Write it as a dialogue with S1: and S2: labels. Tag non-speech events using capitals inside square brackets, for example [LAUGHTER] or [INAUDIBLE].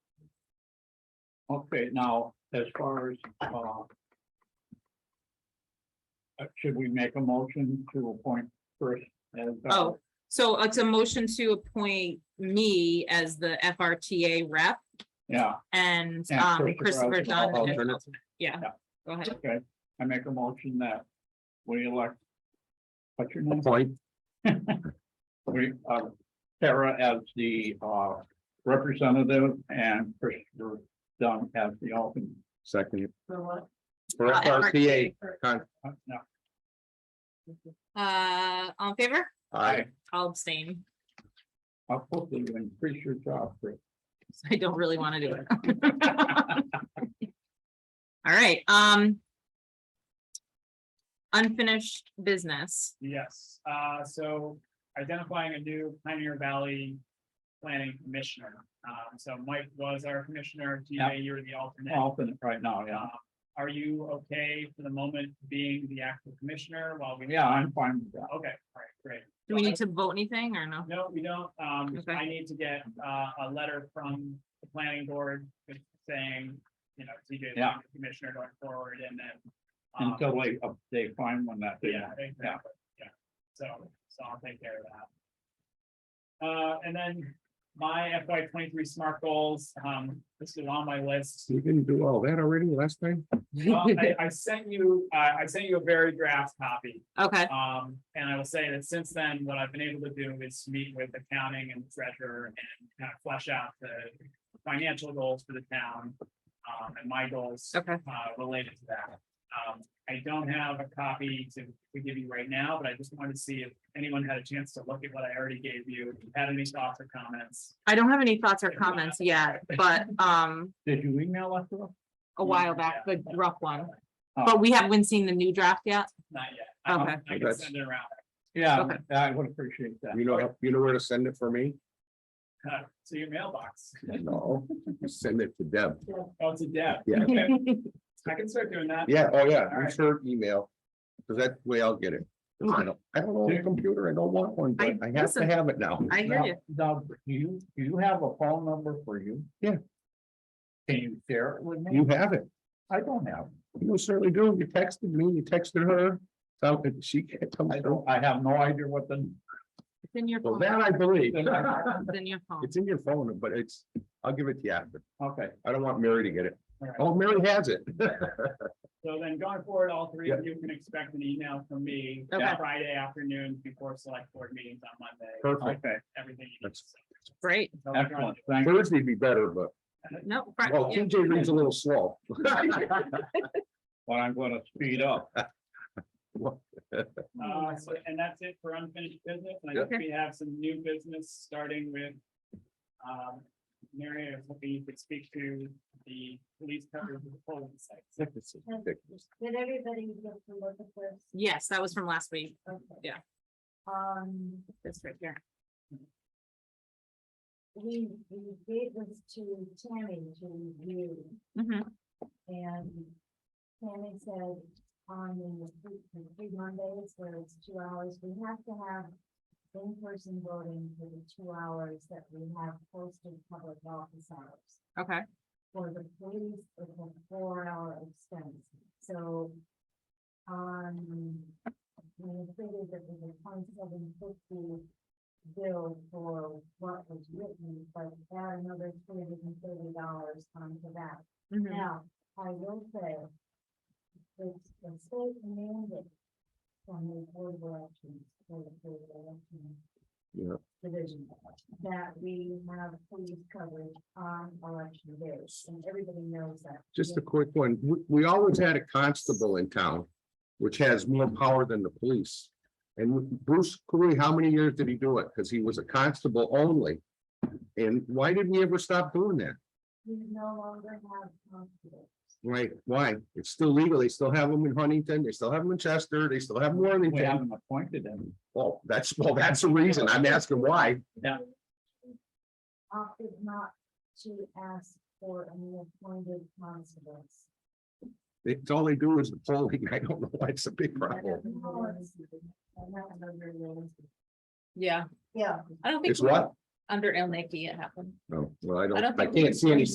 S1: Okay, now, as far as, uh. uh, Should we make a motion to appoint first? as, uh,
S2: Oh. So it's a motion to appoint me as the FRTA rep
S1: Yeah,
S2: and
S1: And
S2: um, Christopher
S1: Christopher Dunn.
S2: Dunn.
S3: Alternate.
S2: Yeah,
S1: Yeah.
S2: go ahead.
S1: okay, I make a motion that we elect. What's your name?
S3: Point,
S1: [LAUGHS] We, uh, Sarah as the, uh, representative and Christopher Dunn as the alternate.
S3: second.
S4: For what?
S3: For
S2: Uh,
S3: FRTA.
S1: Uh, no,
S2: Uh, all in favor?
S3: Aye.
S2: I'll abstain. [LAUGHS]
S1: I'll hopefully you increase your job. Chris.
S2: I don't really want to do it. All right, um. Unfinished [LAUGHS] business.
S5: Yes, uh, so identifying a new Pioneer Valley planning commissioner. Um, so Mike was our commissioner,
S1: Yeah. Oh.
S5: TJ, you're the alternate.
S1: Alternate right now, yeah,
S5: Uh, Are you okay for the moment being the actual commissioner while we?
S1: yeah, I'm fine with that.
S5: Okay, all right, great.
S2: Do we need to vote anything or no?
S5: No, we don't. Um,
S2: Okay.
S5: I need to get, uh, a letter from the planning board just saying, you know, TJ is
S1: Yeah.
S5: the commissioner going forward and then. um,
S1: Until they, uh, they find one that they.
S5: Yeah, exactly, yeah, so, so I'll take care of that. Uh, and then my FY twenty-three smart goals, um, this is on my list.
S1: [LAUGHS]
S3: You didn't do all that already last time? [LAUGHS]
S5: Well, I, I sent you, I, I sent you a very draft copy,
S2: Okay,
S5: um, and I will say that since then, what I've been able to do is meet with accounting and treasurer and kind of flesh out the financial goals for the town, um, and my goals
S2: okay.
S5: uh, related to that. Um, I don't have a copy to, to give you right now, but I just wanted to see if anyone had a chance to look at what I already gave you, if you had any thoughts or comments.
S2: I don't have any thoughts or comments yet, but um,
S1: Did you email us? though?
S2: a while back, the rough one.
S1: Oh,
S2: But we haven't seen the new draft yet.
S5: Not yet. I
S2: Okay.
S5: can- I can
S3: That's-
S5: send it around.
S1: Yeah,
S2: Okay.
S1: I would appreciate that.
S3: You know, you know where to send it for me?
S5: Uh, To your mailbox.
S3: No. You Send it to Deb.
S5: Oh, to Deb.
S3: Yeah.
S5: Okay. I can start doing that.
S3: Yeah, oh yeah,
S5: All
S3: I'm
S5: right.
S3: sure email. Cause that way I'll get it. I don't, I don't own a computer. I don't want one, but
S2: I-
S3: I have to
S2: listen.
S3: have it now.
S2: I hear
S1: Now-
S2: you.
S1: Now, do you, do you have a phone number for you?
S3: Yeah.
S1: Can you share it with me?
S3: You have it.
S1: I don't have,
S3: You certainly do. You texted me, you texted her. So she can't come
S1: I
S3: through.
S1: don't, I have no idea what the.
S2: It's in your
S3: Well,
S2: phone.
S3: that I believe.
S2: It's in your phone.
S3: It's in your phone, but it's, I'll give it to you after.
S1: Okay,
S3: I don't want Mary to get it.
S5: All right.
S3: Oh, Mary has it. [LAUGHS]
S5: So then going forward, all three of you can expect an email from me
S2: Okay.
S5: Friday afternoon before select board meetings on Monday,
S3: Perfect.
S1: okay,
S5: everything. you need.
S3: That's-
S2: Great.
S5: So we're going
S1: excellent, thank you. [LAUGHS]
S3: Thursday'd be better, but,
S2: No. Fri-
S3: well,
S2: yeah.
S3: TJ reads a little slow.
S1: Well, I'm gonna speed up.
S2: Oh,
S5: Uh, so- and that's it for unfinished business, and I
S2: Yeah.
S5: think we have some new business, starting with. Um, Mary, I was hoping you could speak to the police coverage of the polling sites.
S4: Did everybody get to look at this?
S2: Yes, that was from last week.
S4: Okay.
S2: Yeah.
S4: Um,
S2: This right here.
S4: we, we gave this to Tammy to review
S2: Mhm.
S4: and Tammy said on the three- the three Mondays, where it's two hours, we have to have in-person voting for the two hours that we have posted public office hours.
S2: Okay,
S4: for the police, it's a four hour expense, so. Um, we figured that we were twenty-seven fifty bill for what was written, but add another three hundred and thirty dollars onto that.
S2: Mhm.
S4: Now, I will say, it's the state mandate from the board of elections, for the board of elections.
S3: Yeah.
S4: Division, that we have police coverage on election days, and everybody knows that.
S3: Just a quick one. We, we always had a constable in town, which has more power than the police. And Bruce Curry, how many years did he do it? Because he was a constable only. And why did we ever stop doing that?
S4: We no longer have constables.
S3: Right, why? It's still legal. They still have them in Huntington, they still have them in Chester, they still have them in
S1: We
S3: Warrington.
S1: haven't appointed him.
S3: Well, that's, well, that's the reason. I'm asking why.
S1: Yeah.
S4: Opted not to ask for any appointed constables.
S3: It's all they do is the polling. [LAUGHS] I don't know why it's a big problem.
S2: yeah,
S4: Yeah.
S2: I don't think.
S3: It's what?
S2: Under El Nicky it happened.
S3: No, well, I
S2: I
S3: don't,
S2: don't
S3: I
S2: think we-
S3: can't see any